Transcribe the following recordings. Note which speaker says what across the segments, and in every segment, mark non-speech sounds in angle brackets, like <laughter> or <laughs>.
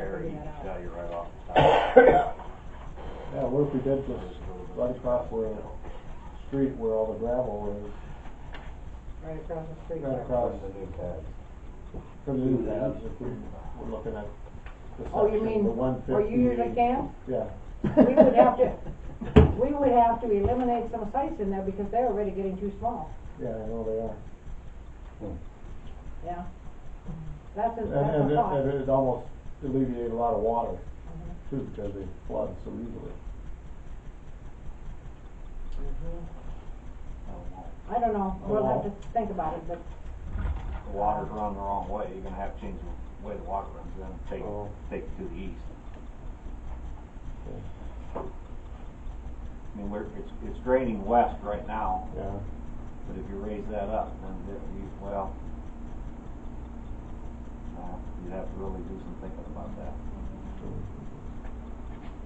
Speaker 1: tell you right off the top.
Speaker 2: Yeah, what if we did this right across where, the street where all the gravel is,
Speaker 3: right across the street.
Speaker 2: right across
Speaker 1: Where's the new pad?
Speaker 2: from the new paths, if we were looking at the
Speaker 3: Oh, you
Speaker 2: section,
Speaker 3: mean,
Speaker 2: the one fifty.
Speaker 3: where you usually camp?
Speaker 2: Yeah,
Speaker 3: We would have to,
Speaker 2: <laughs>
Speaker 3: we would have to eliminate some sites in there because they're already getting too small,
Speaker 2: yeah, I know they are.
Speaker 3: yeah. That's a, that's
Speaker 2: And, and
Speaker 3: a
Speaker 2: it,
Speaker 3: thought.
Speaker 2: and it almost alleviated a lot of water
Speaker 3: Mm-hmm.
Speaker 2: too, because they flood so easily.
Speaker 3: Mm-hmm. I don't know, we'll have to think about it, but
Speaker 1: The water's running the wrong way, you're gonna have to change the way the water runs, then take,
Speaker 2: Oh.
Speaker 1: take it to the east.
Speaker 2: Okay.
Speaker 1: I mean, we're, it's, it's draining west right now,
Speaker 2: Yeah,
Speaker 1: but if you raise that up, then if you, well, uh, you'd have to really do some thinking about that.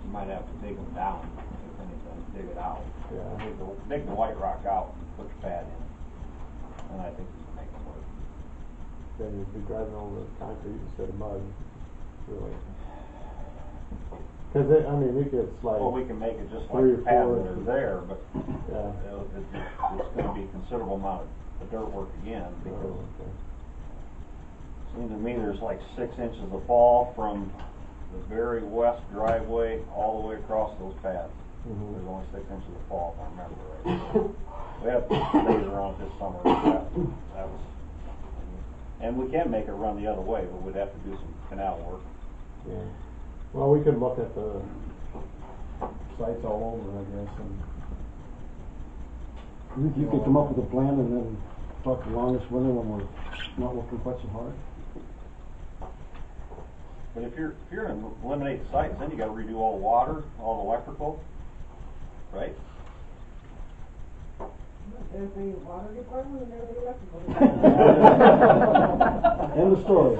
Speaker 1: You might have to dig them down, if anything, dig it out.
Speaker 2: yeah,
Speaker 1: Dig the, dig the white rock out, put the pad in, and I think you can make it work.
Speaker 4: Then you'd be driving over concrete instead of mud, really.
Speaker 2: <sighs>
Speaker 4: Cause it, I mean, it gets
Speaker 1: Well,
Speaker 4: like,
Speaker 1: we can make it just like
Speaker 4: Three or
Speaker 1: the pads
Speaker 4: four
Speaker 1: that are
Speaker 4: inches.
Speaker 1: there, but
Speaker 4: yeah.
Speaker 1: you know, it- it- it's gonna be a considerable amount of dirt work again, because Seems to me there's like six inches of fall from the very west driveway all the way across those paths.
Speaker 2: Mm-hmm.
Speaker 4: Mhm.
Speaker 1: There's only six inches of fall, if I remember right. We had laser on it this summer, but that, that was, and we can make it run the other way, but we'd have to do some canal work.
Speaker 4: Yeah. Well, we could look at the,
Speaker 2: sites all over, I guess, and.
Speaker 5: You you could come up with a plan and then talk to Longus with it when we're not working quite so hard.
Speaker 1: But if you're, if you're gonna eliminate sites, then you gotta redo all the water, all the electrical, right?
Speaker 3: there's the water department and there's the electrical.
Speaker 5: End of story.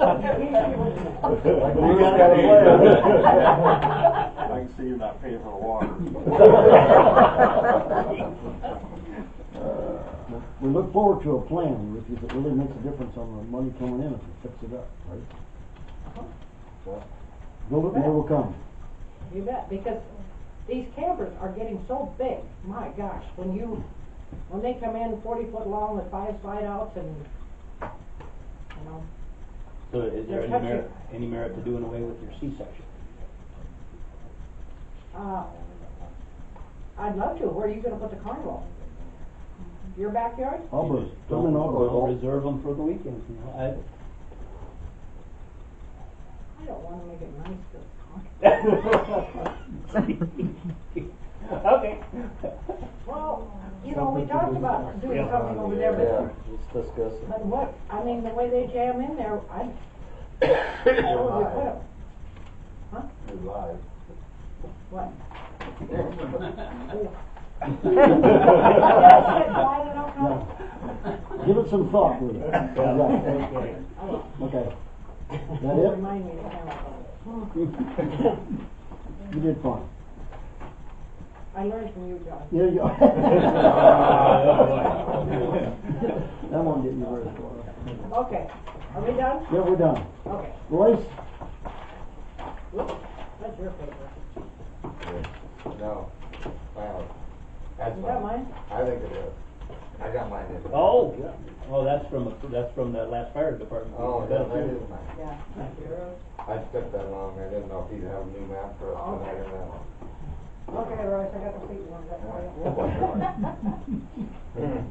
Speaker 4: <laughs>
Speaker 2: <laughs>
Speaker 1: I can see you're not paying for the water.
Speaker 5: We look forward to a plan with you that really makes a difference on the money coming in if we fix it up, right? Build it and they will come.
Speaker 3: You bet, because these campers are getting so big, my gosh, when you, when they come in forty foot long with five slide outs and, you know,
Speaker 6: So is
Speaker 3: They're
Speaker 6: there any
Speaker 3: touching.
Speaker 6: merit, any merit to doing away with your C-section?
Speaker 3: uh, I'd love to, where are you gonna put the carnival? Your backyard?
Speaker 5: Auburn,
Speaker 6: You just
Speaker 5: come in
Speaker 6: don't- don't
Speaker 5: Auburn.
Speaker 6: Reserve them for the weekends, you know, I,
Speaker 3: I don't wanna make it nice for the carnival.
Speaker 4: <laughs>
Speaker 6: Okay.
Speaker 3: Well, you know, we talked about doing something over there,
Speaker 4: yeah,
Speaker 3: but,
Speaker 4: let's discuss <laughs> it.
Speaker 3: but what, I mean, the way they jam in there, I, I would put 'em.
Speaker 1: Live.
Speaker 4: <laughs>
Speaker 3: What? <laughs> Why they don't come?
Speaker 5: Give it some thought, will you? Yeah. Okay. That it?
Speaker 3: Remind me to count.
Speaker 5: You did fine.
Speaker 3: I learned from you, John.
Speaker 5: Yeah, you That <laughs> won't get you very far.
Speaker 3: Okay, are we done?
Speaker 5: Yeah, we're done.
Speaker 3: Okay,
Speaker 5: Royce?
Speaker 3: Whoops, that's your paper.
Speaker 7: No, wow, that's
Speaker 3: Is that
Speaker 7: fine,
Speaker 3: mine?
Speaker 7: I think it is, I got mine in.
Speaker 6: <laughs> Oh, yeah. oh, that's from, a- that's from the last fire department.
Speaker 7: Oh, yeah, that is mine,
Speaker 3: Yeah.
Speaker 7: I stepped that long, I didn't know if you'd have a new map for us tonight or not.
Speaker 3: Okay, Royce, I got the seat one, that's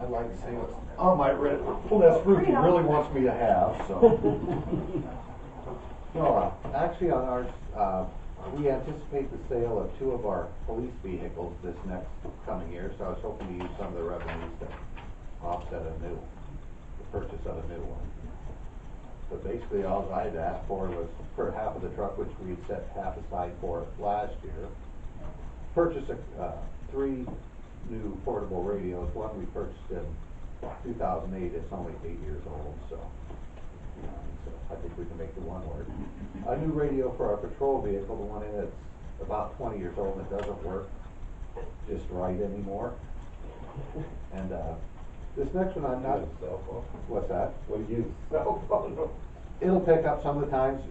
Speaker 7: I'd like to see what's on my red, well, that's roof he really wants me to have, <laughs> so. No, uh, actually, on ours, uh, we anticipate the sale of two of our police vehicles this next coming year, so I was hoping to use some of the revenues to offset a new, the purchase of a new one. But basically, all I'd asked for was for half of the truck, which we had set half aside for last year, purchase a, uh, three new portable radios, one we purchased in two thousand eight, it's only eight years old, so. you know, so I think we can make the one work. A new radio for our patrol vehicle, the one that's about twenty years old and doesn't work just right anymore. And, uh, this next one I'm not. What's that? We'll use cell phone. It'll pick up some of the times,